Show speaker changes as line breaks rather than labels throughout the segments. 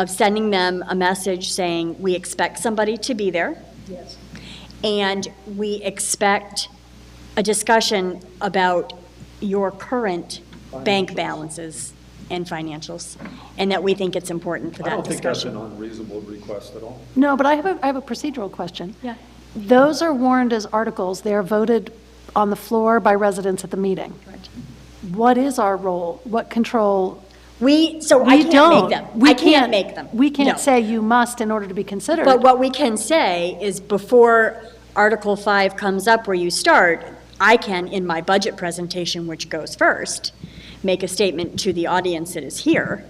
of sending them a message saying, we expect somebody to be there.
Yes.
And we expect a discussion about your current bank balances and financials, and that we think it's important for
I
that
don't think that's
discussion.
an unreasonable request at all.
No, but I have a, I have a procedural question.
Yeah.
Those are warned as articles. They are voted on the floor by residents at the meeting. What is our role? What control?
We, so I
We
can't
don't.
make them.
We
I can't make them.
We
No.
can't say you must in order to be considered.
But what we can say is before Article 5 comes up where you start, I can, in my budget presentation, which goes first, make a statement to the audience that is here.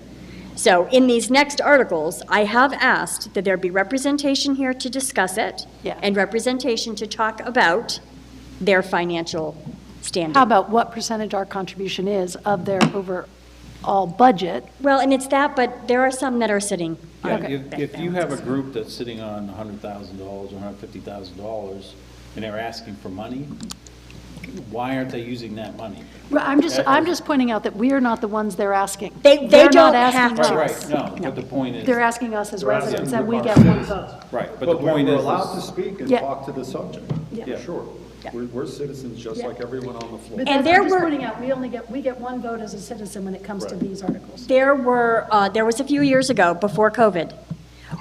So in these next articles, I have asked that there be representation here to discuss it
Yeah.
and representation to talk about their financial standing.
How about what percentage our contribution is of their overall budget?
Well, and it's that, but there are some that are sitting on
Yeah,
Okay.
if, if you have a group that's sitting on hundred thousand dollars or hundred fifty thousand dollars, and they're asking for money, why aren't they using that money?
Right, I'm just, I'm just pointing out that we are not the ones they're asking.
They- they
They're not
don't have
asking
to.
Right,
us.
right, no, but the point is,
They're asking us as
They're asking
residents, and we
our
get one
citizens.
vote.
right, but the
But we
point
we're
is,
allowed to
is-
speak and
Yeah.
talk to the subject,
Yeah.
sure.
Yeah.
We're, we're citizens just
Yeah.
like everyone on the floor.
But
And
that's-
there
I'm just
were-
pointing out, we only get, we get one vote as a citizen when it comes to
Right.
these articles.
There were, uh, there was a few years ago, before COVID,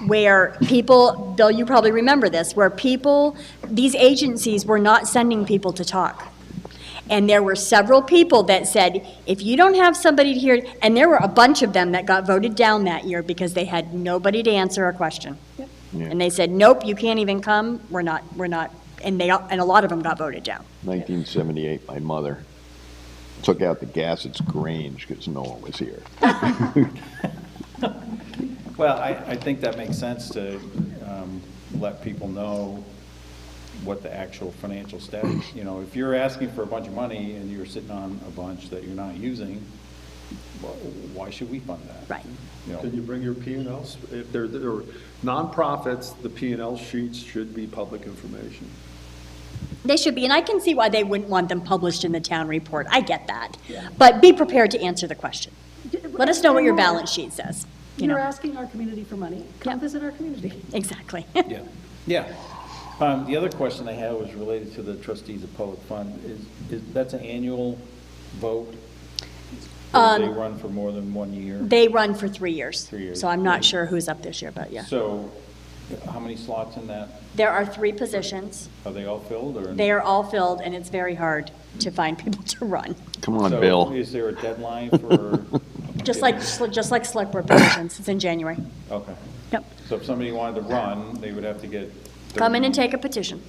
where people, Bill, you probably remember this, where people, these agencies were not sending people to talk. And there were several people that said, if you don't have somebody here, and there were a bunch of them that got voted down that year because they had nobody to answer a question. And they said, nope, you can't even come, we're not, we're not, and they, and a lot of them got voted down.
1978, my mother took out the gas at Grange because no one was here.
well, I, I think that makes sense to, um, let people know what the actual financial status, you know, if you're asking for a bunch of money and you're sitting on a bunch that you're not using, wh- why should we fund that?
Right.
You know?
Can you bring your P and Ls? If they're, they're nonprofits, the P and L sheets should be public information.
They should be, and I can see why they wouldn't want them published in the town report. I get that. But be prepared to answer the question. Let us know what your balance sheet says, you
You're
know?
asking our community for money. Come visit our community.
Exactly.
Yeah, yeah. Um, the other question I had was related to the trustees of public fund, is, is, that's an annual vote? Or They run for more than one year?
Um, They run for three years.
Three years.
So I'm not sure who's up this year, but yeah.
So, how many slots in that?
There are three positions.
Are they all filled, or?
They are all filled, and it's very hard to find people to run,
Come on,
So,
Bill.
Is there a deadline for?
just like, just like select board positions. It's in January.
Okay,
Yep.
so if somebody wanted to run, they would have to get.
Come in and
30
take a petition.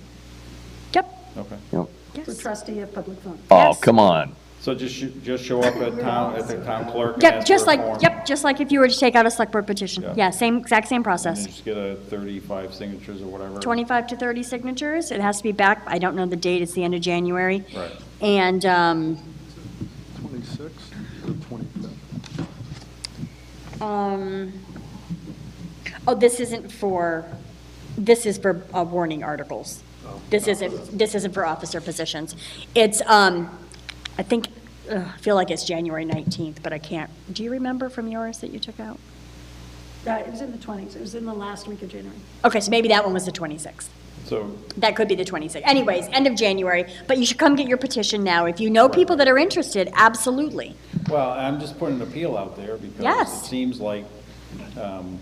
Yep.
Okay,
Yep.
For trustee of public funds.
Oh,
Yes.
come on.
so just, sh- just show up at town, at the town clerk and
Yep,
ask for a
just like,
form,
yep, just like if you were to take out a select board petition.
Yeah.
Yeah, same, exact same
And
process.
you just get a thirty-five signatures or whatever.
25 to 30 signatures. It has to be back, I don't know the date, it's the end of January.
Right.
And um,
Twenty-six or twenty-fifth?
um, Oh, this isn't for, this is for uh, warning articles. This isn't, this isn't for officer positions. It's, um, I think, ugh, I feel like it's January 19th, but I can't. Do you remember from yours that you took out?
Uh, It was in the 20s. It was in the last week of January.
Okay, so maybe that one was the 26th.
So,
That could be the 26th. Anyways, end of January, but you should come get your petition now. If you know people that are interested, absolutely.
Well, I'm just putting an appeal out there because
Yes.
it seems like, um,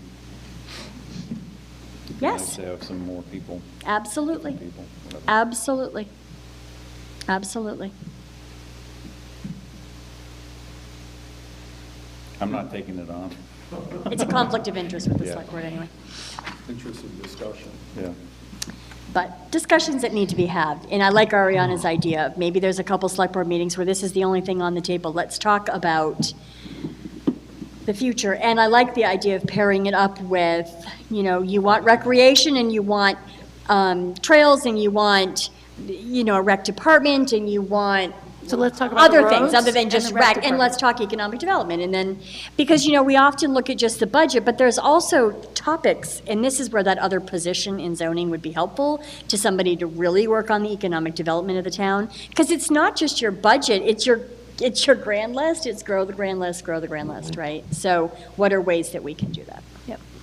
it'd be nice
Yes. uh,
to have some more people,
Absolutely.
people, whatever.
Absolutely. Absolutely.
I'm not taking it on,
It's a conflict of interest with the
Yeah.
select board anyway.
Interesting discussion.
yeah.
But discussions that need to be had, and I like Ariana's idea, of maybe there's a couple select board meetings where this is the only thing on the table. Let's talk about the future. And I like the idea of pairing it up with, you know, you want recreation and you want um, trails and you want, you know, a rec department and you want
So let's talk about the
other things
roads
other than
and
just
the rec
rec, and let's talk economic development, and then, because, you know, we often look at just the budget, but there's also topics, and this is where that other position in zoning would be helpful to somebody to really work on the economic development of the town, because it's not just your budget, it's your,
Mm-hmm.
it's your grand list, it's grow the grand list, grow the grand list, right? So what are ways that we can do that?
Yep.